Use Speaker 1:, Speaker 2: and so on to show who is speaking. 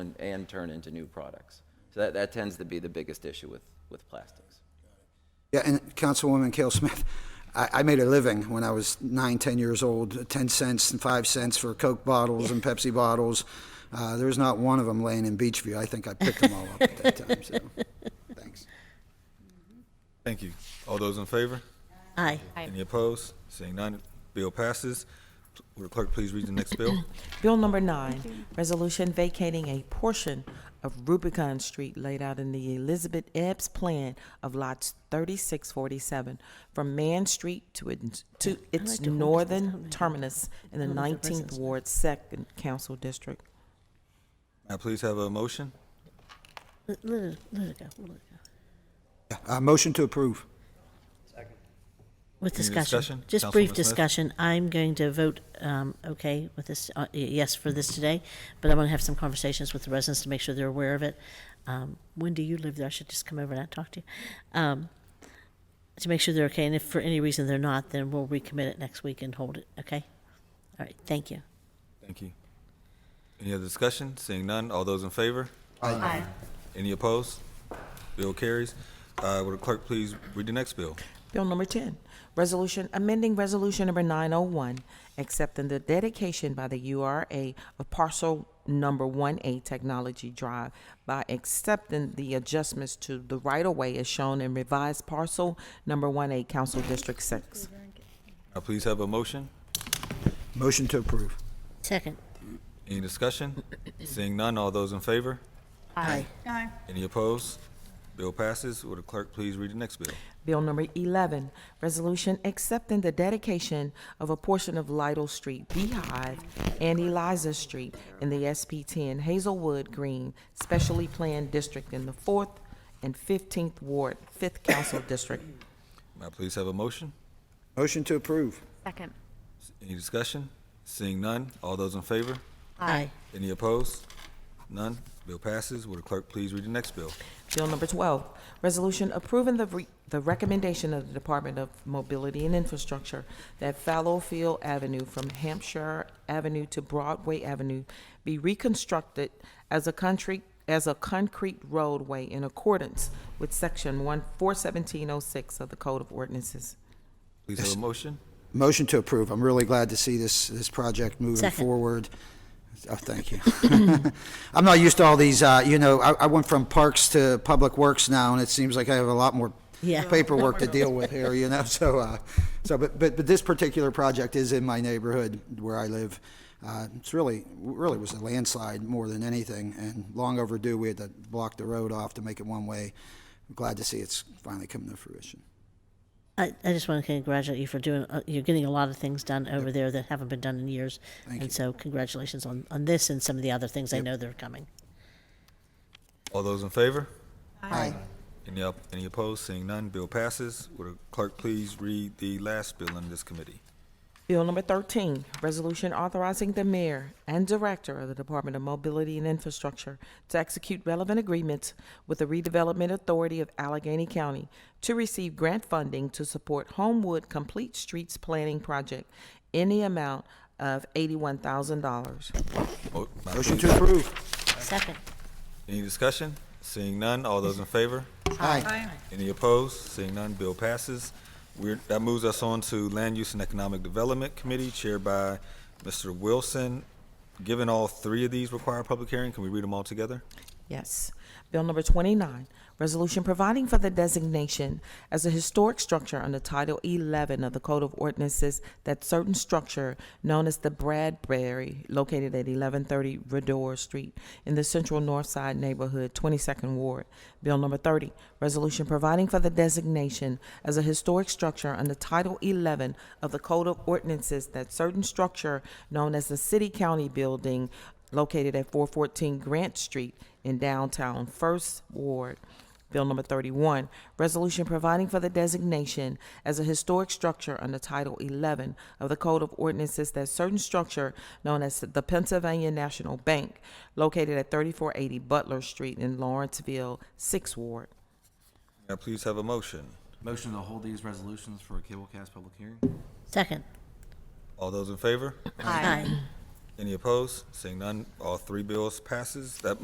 Speaker 1: and, and turn into new products. So that, that tends to be the biggest issue with, with plastics.
Speaker 2: Yeah, and Councilwoman Kale Smith, I, I made a living when I was nine, ten years old, ten cents and five cents for Coke bottles and Pepsi bottles. Uh, there was not one of them laying in Beachview. I think I picked them all up at that time, so, thanks.
Speaker 3: Thank you. All those in favor?
Speaker 4: Aye.
Speaker 3: Any opposed? Seeing none, bill passes. Will the clerk please read the next bill?
Speaker 4: Bill number nine, resolution vacating a portion of Rubicon Street laid out in the Elizabeth Epps plan of lots thirty-six forty-seven from Man Street to its, to its northern terminus in the nineteenth ward, second council district.
Speaker 3: May I please have a motion?
Speaker 5: Let, let it, let it go. Let it go.
Speaker 2: Uh, motion to approve.
Speaker 5: With
Speaker 3: Any
Speaker 5: discussion,
Speaker 3: discussion?
Speaker 5: just brief
Speaker 3: Councilwoman Smith?
Speaker 5: discussion. I'm going to vote um, okay with this, uh, y- yes for this today, but I'm going to have some conversations with the residents to make sure they're aware of it. Um, Wendy, you live there. I should just come over and talk to you um, to make sure they're okay. And if for any reason they're not, then we'll recommit it next week and hold it. Okay. All right. Thank you.
Speaker 3: Thank you. Any other discussion? Seeing none, all those in favor? Any opposed? Bill carries. Uh, will the clerk please read the next bill?
Speaker 4: Bill number ten, resolution, amending resolution number nine oh one, accepting the dedication by the URA of parcel number one A Technology Drive by accepting the adjustments to the right-of-way as shown in revised parcel number one A Council District Six.
Speaker 3: May I please have a motion?
Speaker 2: Motion to approve.
Speaker 5: Second.
Speaker 3: Any discussion? Seeing none, all those in favor?
Speaker 5: Aye.
Speaker 3: Any opposed? Bill passes. Will the clerk please read the next bill?
Speaker 4: Bill number 11, resolution accepting the dedication of a portion of Lytle Street, Beehive, and Eliza Street in the SP 10 Hazelwood Green Specially Planned District in the 4th and 15th Ward, 5th Council District.
Speaker 3: May I please have a motion?
Speaker 2: Motion to approve.
Speaker 6: Second.
Speaker 3: Any discussion? Seeing none, all those in favor?
Speaker 5: Aye.
Speaker 3: Any opposed? None. Bill passes. Will the clerk please read the next bill?
Speaker 4: Bill number 12, resolution approving the, re- the recommendation of the Department of Mobility and Infrastructure that Fallowfield Avenue from Hampshire Avenue to Broadway Avenue be reconstructed as a country, as a concrete roadway in accordance with section 1, 41706 of the Code of Ordinances.
Speaker 3: Please have a motion.
Speaker 2: Motion to approve. I'm really glad to see this, this project moving
Speaker 5: Second.
Speaker 2: forward. Oh, thank you. I'm not used to all these, uh, you know, I, I went from parks to public works now, and it seems like I have a lot more
Speaker 5: Yeah.
Speaker 2: paperwork to deal with here, you know, so, uh, so, but, but, but this particular project is in my neighborhood where I live. Uh, it's really, really was a landslide more than anything, and long overdue, we had to block the road off to make it one-way. Glad to see it's finally coming to fruition.
Speaker 5: I, I just want to congratulate you for doing, uh, you're getting a lot of things done over there that haven't been done in years. and so, congratulations on, on this and some of the other things. I know they're coming.
Speaker 3: All those in favor?
Speaker 2: Aye.
Speaker 3: Any, op- any opposed? Seeing none, bill passes. Would the clerk please read the last bill in this committee?
Speaker 4: Bill number 13, resolution authorizing the mayor and director of the Department of Mobility and Infrastructure to execute relevant agreements with the Redevelopment Authority of Allegheny County to receive grant funding to support Homewood Complete Streets Planning Project in the amount of $81,000.
Speaker 3: Mo- may I
Speaker 2: Motion
Speaker 3: please-
Speaker 2: to approve.
Speaker 5: Second.
Speaker 3: Any discussion? Seeing none, all those in favor?
Speaker 2: Aye.
Speaker 3: Any opposed? Seeing none, bill passes. We're, that moves us on to Land Use and Economic Development Committee chaired by Mr. Wilson. Given all three of these require public hearing, can we read them all together?
Speaker 4: Yes. Bill number 29, resolution providing for the designation as a historic structure under Title 11 of the Code of Ordinances that certain structure known as the Bradbury, located at 1130 Redor Street in the Central North Side neighborhood, 22nd Ward. Bill number 30, resolution providing for the designation as a historic structure under Title 11 of the Code of Ordinances that certain structure known as the City County Building located at 414 Grant Street in downtown First Ward. Bill number 31, resolution providing for the designation as a historic structure under Title 11 of the Code of Ordinances that certain structure known as the Pennsylvania National Bank located at 3480 Butler Street in Lawrenceville, 6th Ward.
Speaker 3: May I please have a motion?
Speaker 7: Motion to hold these resolutions for a cablecast public hearing?
Speaker 5: Second.
Speaker 3: All those in favor?
Speaker 5: Aye.
Speaker 3: Any opposed? Seeing none, all three bills passes. That